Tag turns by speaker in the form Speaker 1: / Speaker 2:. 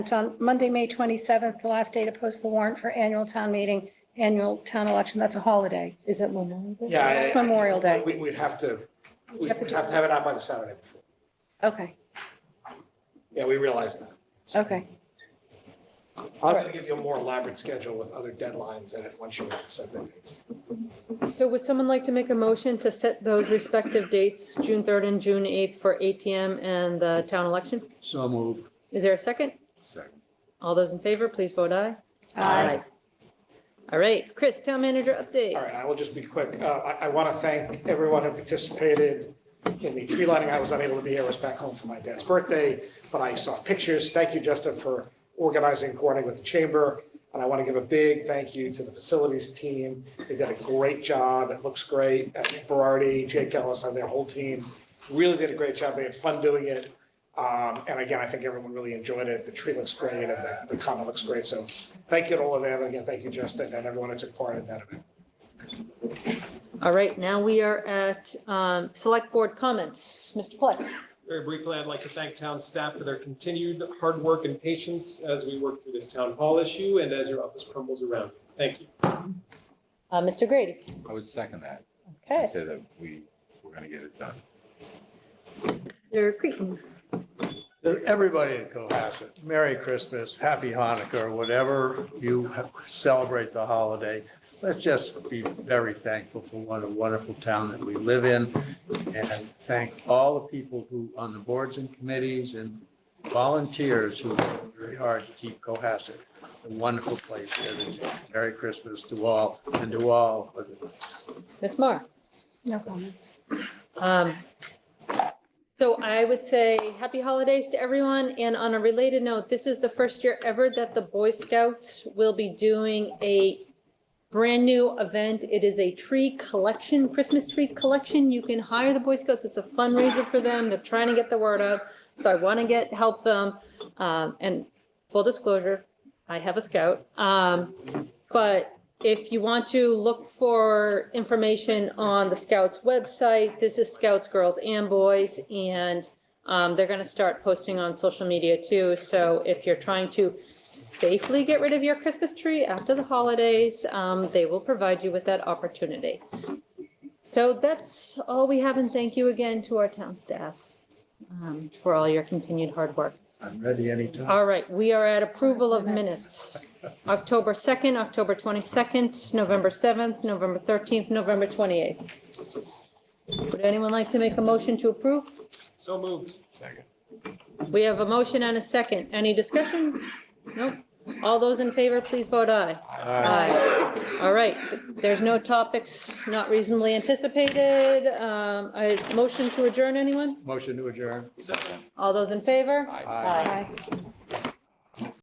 Speaker 1: It's on Monday, May 27th, the last day to post the warrant for annual town meeting, annual town election. That's a holiday.
Speaker 2: Is it Memorial Day?
Speaker 3: Yeah. I-
Speaker 1: That's Memorial Day.
Speaker 3: We, we'd have to,
Speaker 1: We'd
Speaker 3: we'd
Speaker 1: have to
Speaker 3: have to have it out by the Saturday before.
Speaker 1: Okay,
Speaker 3: Yeah, we realize that.
Speaker 1: okay.
Speaker 3: I'm gonna give you a more elaborate schedule with other deadlines in it once you set the dates.
Speaker 4: So would someone like to make a motion to set those respective dates, June 3rd and June 8th for ATM and the town election?
Speaker 5: So moved.
Speaker 4: Is there a second?
Speaker 5: Second.
Speaker 4: All those in favor, please vote aye.
Speaker 1: Aye.
Speaker 4: All right, Chris, town manager update.
Speaker 3: All right, I will just be quick. Uh, I, I want to thank everyone who participated in the tree lighting. I was unable to be here, I was back home for my dad's birthday, but I saw pictures. Thank you, Justin, for organizing, coordinating with the chamber. And I want to give a big thank you to the facilities team. They did a great job. It looks great. Uh, Nick Berardi, Jake Ellis, and their whole team really did a great job. They had fun doing it. Um, and again, I think everyone really enjoyed it. The tree looks great and the, the common looks great. So thank you to all of them. Again, thank you, Justin, and everyone who took part in that event.
Speaker 4: All right, now we are at um, select board comments. Mr. Plex.
Speaker 6: Very briefly, I'd like to thank town staff for their continued hard work and patience as we work through this town hall issue and as your office crumbles around. Thank you.
Speaker 4: Uh, Mr. Grady.
Speaker 5: I would second that. I
Speaker 4: Okay.
Speaker 5: said that we were gonna get it done.
Speaker 4: Mr. Creighton.
Speaker 7: to everybody in Cohasset, Merry Christmas, Happy Hanukkah, or whatever you ha- celebrate the holiday. Let's just be very thankful for what a wonderful town that we live in and thank all the people who, on the boards and committees and volunteers who work very hard to keep Cohasset a wonderful place. every day. Merry Christmas to all and to all. of the-
Speaker 4: Ms. Mar.
Speaker 1: No comments.
Speaker 4: Um, So I would say happy holidays to everyone. And on a related note, this is the first year ever that the Boy Scouts will be doing a brand-new event. It is a tree collection, Christmas tree collection. You can hire the Boy Scouts. It's a fundraiser for them. They're trying to get the word out. So I want to get, help them. Um, And full disclosure, I have a scout. Um, But if you want to look for information on the Scouts website, this is Scouts, Girls and Boys, and um, they're gonna start posting on social media too, so if you're trying to safely get rid of your Christmas tree after the holidays, um, they will provide you with that opportunity. So that's all we have, and thank you again to our town staff um, for all your continued hard work.
Speaker 7: I'm ready anytime.
Speaker 4: All right, we are at approval of
Speaker 1: Minutes.
Speaker 4: minutes. October 2nd, October 22nd, November 7th, November 13th, November 28th. Would anyone like to make a motion to approve?
Speaker 6: So moved.
Speaker 5: Second.
Speaker 4: We have a motion and a second. Any discussion? Nope. All those in favor, please vote aye. Uh, Aye. All right, there's no topics not reasonably anticipated. Um, I, motion to adjourn, anyone?
Speaker 7: Motion to adjourn.
Speaker 5: Second.
Speaker 4: All those in favor?
Speaker 5: Aye.
Speaker 2: Aye.
Speaker 1: Aye.